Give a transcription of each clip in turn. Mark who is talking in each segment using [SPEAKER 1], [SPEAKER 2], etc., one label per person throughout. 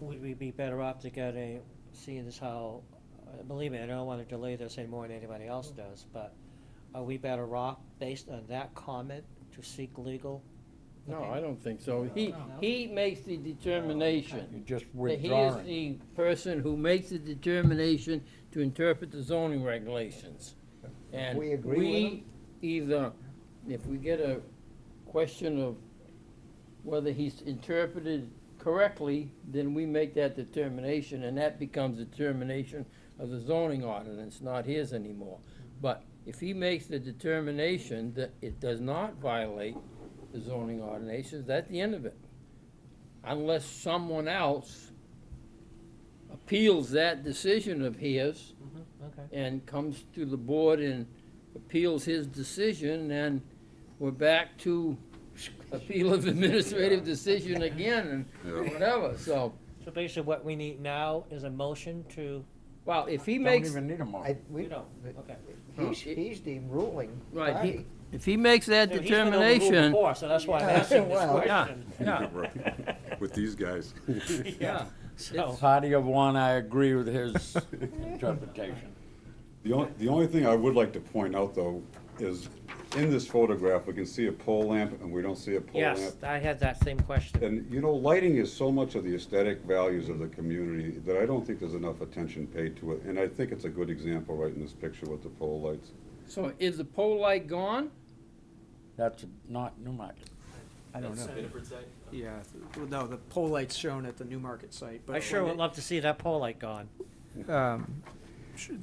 [SPEAKER 1] would we be better off to get a, seeing as how, uh, believe me, I don't wanna delay this any more than anybody else does, but are we better off, based on that comment, to seek legal?
[SPEAKER 2] No,
[SPEAKER 1] opinion?
[SPEAKER 2] I don't think so. He,
[SPEAKER 3] He, he makes the
[SPEAKER 4] You're
[SPEAKER 3] determination.
[SPEAKER 4] just
[SPEAKER 3] He is
[SPEAKER 4] withdrawing.
[SPEAKER 3] the person who makes the determination to interpret the zoning regulations. And
[SPEAKER 5] We agree with
[SPEAKER 3] we either, if we get a question of whether he's interpreted correctly, then we make that determination, and that becomes the determination of the zoning ordinance, not his anymore. But if he makes the determination that it does not violate the zoning ordinances, that's the end of it. Unless someone else appeals that decision of his
[SPEAKER 1] Mhm, Okay,
[SPEAKER 3] and comes to the board and appeals his decision, and we're back to appeal of administrative decision again and
[SPEAKER 6] Yeah.
[SPEAKER 3] whatever, so,
[SPEAKER 1] so basically what we need now is a motion to,
[SPEAKER 3] well, if he
[SPEAKER 4] Don't
[SPEAKER 3] makes,
[SPEAKER 4] even need a
[SPEAKER 5] I,
[SPEAKER 4] motion.
[SPEAKER 5] we,
[SPEAKER 1] you don't, okay.
[SPEAKER 5] he's, he's the ruling
[SPEAKER 3] right, he,
[SPEAKER 5] party.
[SPEAKER 3] if he makes that
[SPEAKER 1] So he's been overruled
[SPEAKER 3] determination,
[SPEAKER 1] Before, so that's why I'm asking this
[SPEAKER 5] Well-
[SPEAKER 3] Yeah.
[SPEAKER 1] question,
[SPEAKER 3] yeah,
[SPEAKER 6] Right. With these guys.
[SPEAKER 3] yeah.
[SPEAKER 1] so.
[SPEAKER 4] Party of one, I agree with his interpretation.
[SPEAKER 6] The only, the only thing I would like to point out, though, is in this photograph, we can see a pole lamp and we don't see a pole lamp.
[SPEAKER 1] Yes, I had that same question.
[SPEAKER 6] And, you know, lighting is so much of the aesthetic values of the community that I don't think there's enough attention paid to it. And I think it's a good example right in this picture with the pole lights.
[SPEAKER 3] So is the pole light gone?
[SPEAKER 4] That's not Newmarket.
[SPEAKER 7] I don't know. Yeah, th- no, the pole light's shown at the Newmarket site, but.
[SPEAKER 1] I sure
[SPEAKER 7] when
[SPEAKER 1] would love to see that pole light gone.
[SPEAKER 7] it- um,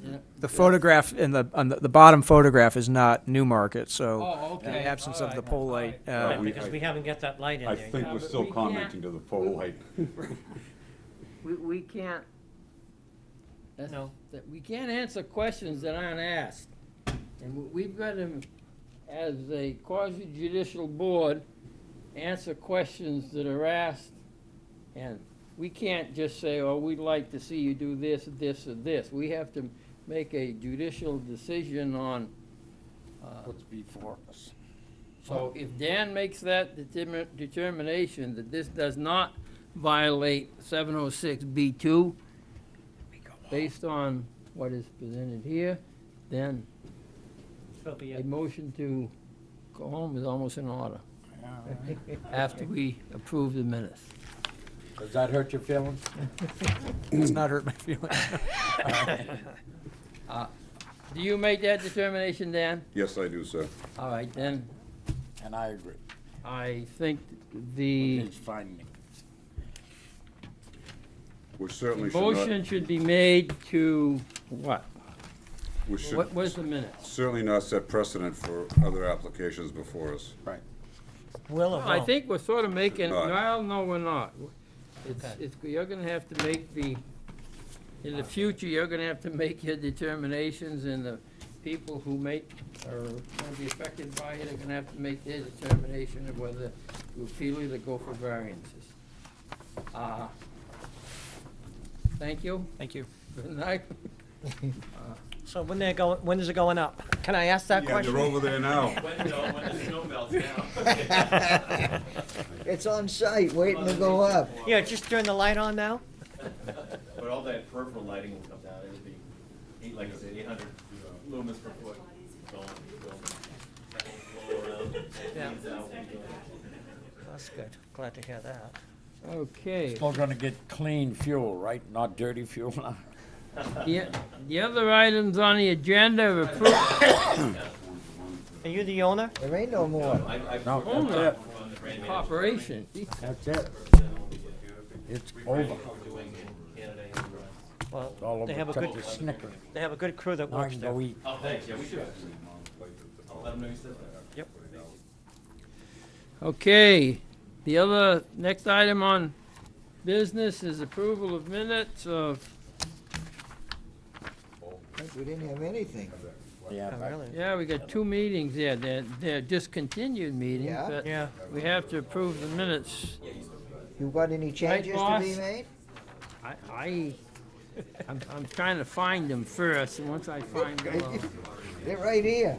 [SPEAKER 3] Yeah.
[SPEAKER 7] The photograph in the, on the, the bottom photograph is not Newmarket, so
[SPEAKER 3] Oh,
[SPEAKER 7] in the
[SPEAKER 3] okay.
[SPEAKER 7] absence of the
[SPEAKER 1] alright,
[SPEAKER 7] pole light.
[SPEAKER 6] Uh,
[SPEAKER 1] Right,
[SPEAKER 7] uh,
[SPEAKER 6] we-
[SPEAKER 1] Because
[SPEAKER 6] I-
[SPEAKER 1] we haven't got that light in
[SPEAKER 6] I
[SPEAKER 1] there.
[SPEAKER 6] think
[SPEAKER 3] Yeah,
[SPEAKER 6] we're
[SPEAKER 3] but
[SPEAKER 6] still
[SPEAKER 3] we can't-
[SPEAKER 6] commenting to the pole light.
[SPEAKER 3] We, we can't. That's,
[SPEAKER 1] No.
[SPEAKER 3] that, we can't answer questions that aren't asked. And we- we've got to, as a quasi judicial board, answer questions that are asked. And we can't just say, oh, we'd like to see you do this, this, or this. We have to make a judicial decision on, uh,
[SPEAKER 4] What's before us?
[SPEAKER 3] so if Dan makes that determin- determination that this does not violate seven oh six B two, based on what is presented here, then
[SPEAKER 1] So be
[SPEAKER 3] a
[SPEAKER 1] it.
[SPEAKER 3] motion to go home is almost in order, after we approve the minutes.
[SPEAKER 4] Does that hurt your feelings?
[SPEAKER 7] Does not hurt my feelings.
[SPEAKER 3] Do you make that determination, Dan?
[SPEAKER 6] Yes, I do, sir.
[SPEAKER 3] All right, then,
[SPEAKER 4] And I agree.
[SPEAKER 3] I think the
[SPEAKER 4] His finding.
[SPEAKER 6] We certainly should not,
[SPEAKER 3] motion should be made to, what?
[SPEAKER 6] we
[SPEAKER 3] What,
[SPEAKER 6] should
[SPEAKER 3] where's the minutes?
[SPEAKER 6] certainly not set precedent for other applications before us.
[SPEAKER 1] Will or
[SPEAKER 3] Well, I
[SPEAKER 1] won't?
[SPEAKER 3] think we're sort of making,
[SPEAKER 6] Not.
[SPEAKER 3] well, no, we're not. It's,
[SPEAKER 1] Okay.
[SPEAKER 3] it's, you're gonna have to make the, in the future, you're gonna have to make your determinations, and the people who make, are gonna be affected by it are gonna have to make their determination of whether to appeal it or go for variances. Uh, Thank you,
[SPEAKER 7] Thank you.
[SPEAKER 3] good night.
[SPEAKER 1] So when they're going, when is it going up? Can I ask that
[SPEAKER 6] Yeah,
[SPEAKER 1] question?
[SPEAKER 6] you're over there now.
[SPEAKER 5] It's on site, waiting to go up.
[SPEAKER 1] Yeah, just turn the light on now?
[SPEAKER 8] But all that peripheral lighting will come down, it'll be, eight- like I said, eight hundred lumens per foot. Going, going. That will blow around,
[SPEAKER 1] Yeah.
[SPEAKER 8] bleeds out, we go.
[SPEAKER 1] That's good. Glad to hear that.
[SPEAKER 3] Okay,
[SPEAKER 4] Still gonna get clean fuel, right? Not dirty fuel.
[SPEAKER 3] the, the other items on the agenda are approved,
[SPEAKER 1] Are you the owner?
[SPEAKER 5] There ain't no more.
[SPEAKER 8] I, I.
[SPEAKER 4] No, that's it.
[SPEAKER 8] on the brand manager
[SPEAKER 3] operation.
[SPEAKER 4] That's it. It's over.
[SPEAKER 8] doing in Canada and the rest.
[SPEAKER 4] It's all
[SPEAKER 1] Well,
[SPEAKER 4] over.
[SPEAKER 1] they have a
[SPEAKER 4] Except
[SPEAKER 1] good,
[SPEAKER 4] the Snickers.
[SPEAKER 1] they have a good crew that
[SPEAKER 4] Now I
[SPEAKER 1] works
[SPEAKER 4] can
[SPEAKER 1] there.
[SPEAKER 4] go eat.
[SPEAKER 8] Oh, thanks, yeah, we should. I'll let them know you said that.
[SPEAKER 3] Okay, the other, next item on business is approval of minutes of,
[SPEAKER 5] We didn't have anything.
[SPEAKER 4] Yeah,
[SPEAKER 1] Oh,
[SPEAKER 4] but-
[SPEAKER 1] really?
[SPEAKER 3] yeah, we got two meetings there, they're, they're discontinued meetings,
[SPEAKER 5] Yeah.
[SPEAKER 3] but
[SPEAKER 1] Yeah.
[SPEAKER 3] we have to approve the minutes.
[SPEAKER 5] You got any changes to
[SPEAKER 3] boss?
[SPEAKER 5] be made?
[SPEAKER 3] I, I, I'm, I'm trying to find them first, and once I find them, I'll-
[SPEAKER 5] They're right here.